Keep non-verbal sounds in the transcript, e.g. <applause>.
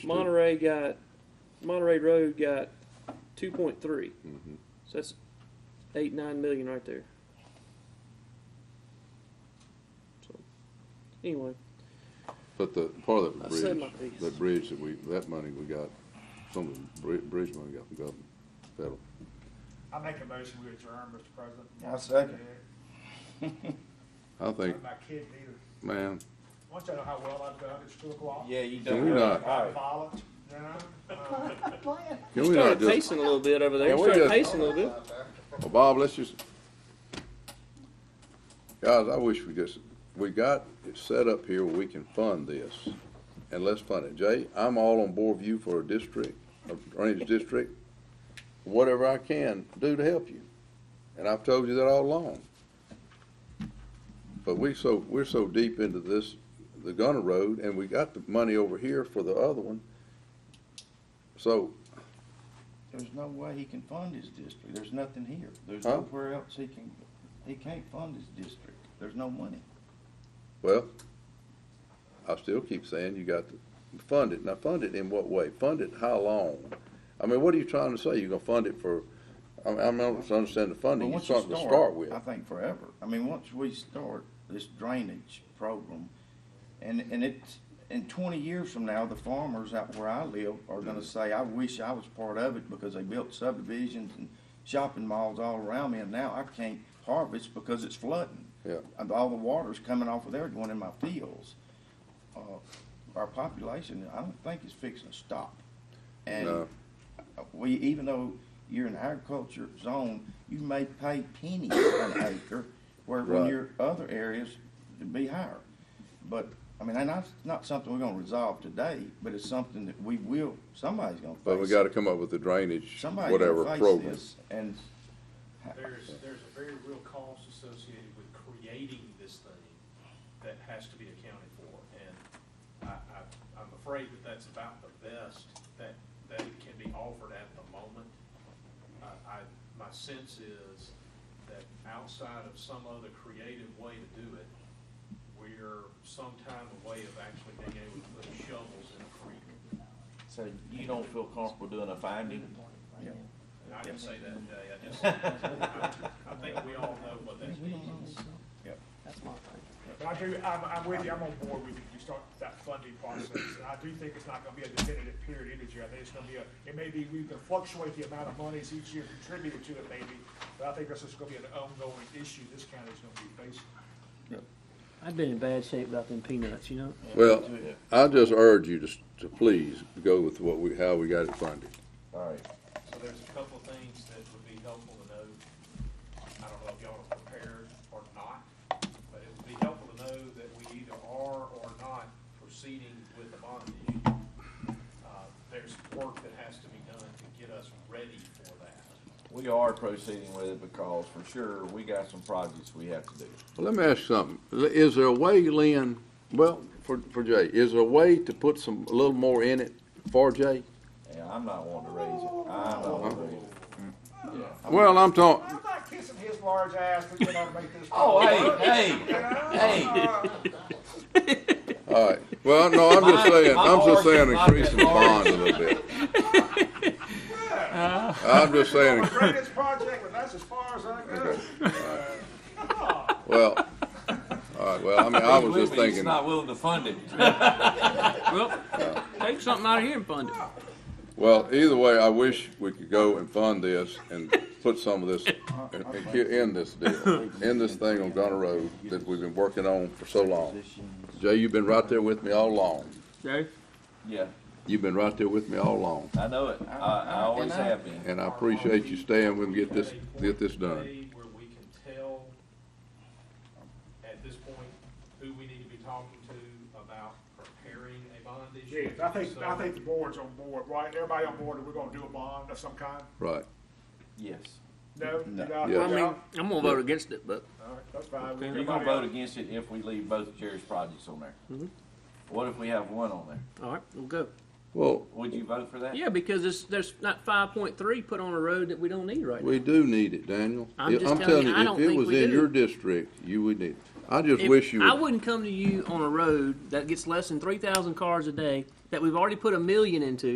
Monterey got, Monterey Road got two point three. Mm-hmm. So that's eight, nine million right there. So, anyway, But the part of I that said my bridge, piece. that bridge that we, that money we got, some of the bri- bridge money we got from government, federal. I make a motion we adjourn, Mr. President. I second. I My think, kids either, man, once I know how well I've done at school law. Yeah, you can we done. not, Alright. Violent, you know, uh, can you we not started just, pacing a little bit over there. Yeah, You we started just- pacing a little bit. Well, Bob, let's just, guys, I wish we just, we got it set up here where we can fund this, and let's fund it. Jay, I'm all on board with you for a district, a drainage district, whatever I can do to help you, and I've told you that all along. But we so, we're so deep into this, the Gunner Road, and we got the money over here for the other one. So, There's no way he can fund his district. There's nothing here. There's Huh? nowhere else he can, he can't fund his district. There's no money. Well, I still keep saying you got to fund it. Now, fund it in what way? Fund it how long? I mean, what are you trying to say? You're gonna fund it for, I mean, I don't understand the But funding. You're once you something to start with. I think forever. I mean, once we start this drainage program, and, and it's, in twenty years from now, the farmers out where I live are gonna say, I wish I was part of it because they built subdivisions and shopping malls all around me, and now I can't harvest because it's flooding. Yeah. And all the water's coming off of there going in my fields. Uh, our population, I don't think is fixing to stop. And No. we, even though you're in agriculture zone, you may pay pennies an acre, where when Right. your other areas, it'd be higher. But, I mean, and that's not something we're gonna resolve today, but it's something that we will, somebody's gonna face. But we gotta come up with a drainage, Somebody's whatever gonna face program. this, And There's, there's a very real cost associated with creating this thing that has to be accounted for. And I, I, I'm afraid that that's about the best that, that can be offered at the moment. I, I, my sense is that outside of some other creative way to do it, we're some time away of actually being able to put shovels in the creek. So you don't feel comfortable doing a finding? yeah, And I didn't say that today, I <laughs> just, I I think we all know what that means. But I do, I'm, I'm with you, I'm on board with you, you start that funding process, and I do think it's not gonna be a definitive period either, Jerry, I think it's gonna be a, it may be, we can fluctuate the amount of monies each year contributed to it maybe, but I think this is gonna be an ongoing issue this county's gonna be facing. I'd been in bad shape without them peanuts, you know? Well, I just urge you to, s- to please go with what we, how we got it funded. alright. So there's a couple of things that would be helpful to know. I don't know if y'all are prepared or not, but it would be helpful to know that we either are or not proceeding with the bond issue. Uh, There's work that has to be done to get us ready for that. We are proceeding with it because for sure, we got some projects we have to do. Well, let me ask you something. L- Is there a way, Lynn, well, for, for Jay, is there a way to put some, a little more in it for Jay? And I'm not wanting to raise it. I'm not wanting to raise it. Yeah. Well, I'm talking, I'm not kissing his large ass, we cannot make this. Oh, <laughs> hey, hey, hey. Uh, All right. Well, no, I'm just saying, I'm just saying My- my horse increase is the not that bond a little bit. I'm just saying, The greatest project, but that's as far as I go. well, all right, well, I mean, I was He's just with me, he's thinking, Not willing to <laughs> fund it. Well, take something out of here and fund it. well, either way, I wish we could go and fund this and put some of this, and- and ki- end this deal, end this thing on Gunner Road that we've been working on for so long. Positions. Jay, you've been right there with me all along. Jay? Yeah, You've been right there with me all along. I know it. I, I always have been. And I appreciate you staying with me, get this, get this At a done. point today Where we can tell at this point who we need to be talking to about preparing a bond Yeah, issue. I think, I So- think the board's on board, right, everybody on board, that we're gonna do a bond of some kind? Right. Yes. No? No. No? Yeah. I mean, No? I'm gonna vote against it, but All right, that's fine. You're gonna vote against it if we leave both Jerry's projects on there. What if we have one on there? all right, we'll go. Well, Would you vote for that? Yeah, because it's, there's not five point three put on a road that we don't need right now. We do need it, Daniel. I'm just telling you, I if don't it think was we in do. your district, you would need. it. I just If- wish you. I would- wouldn't come to you on a road that gets less than three thousand cars a day that we've already put a million into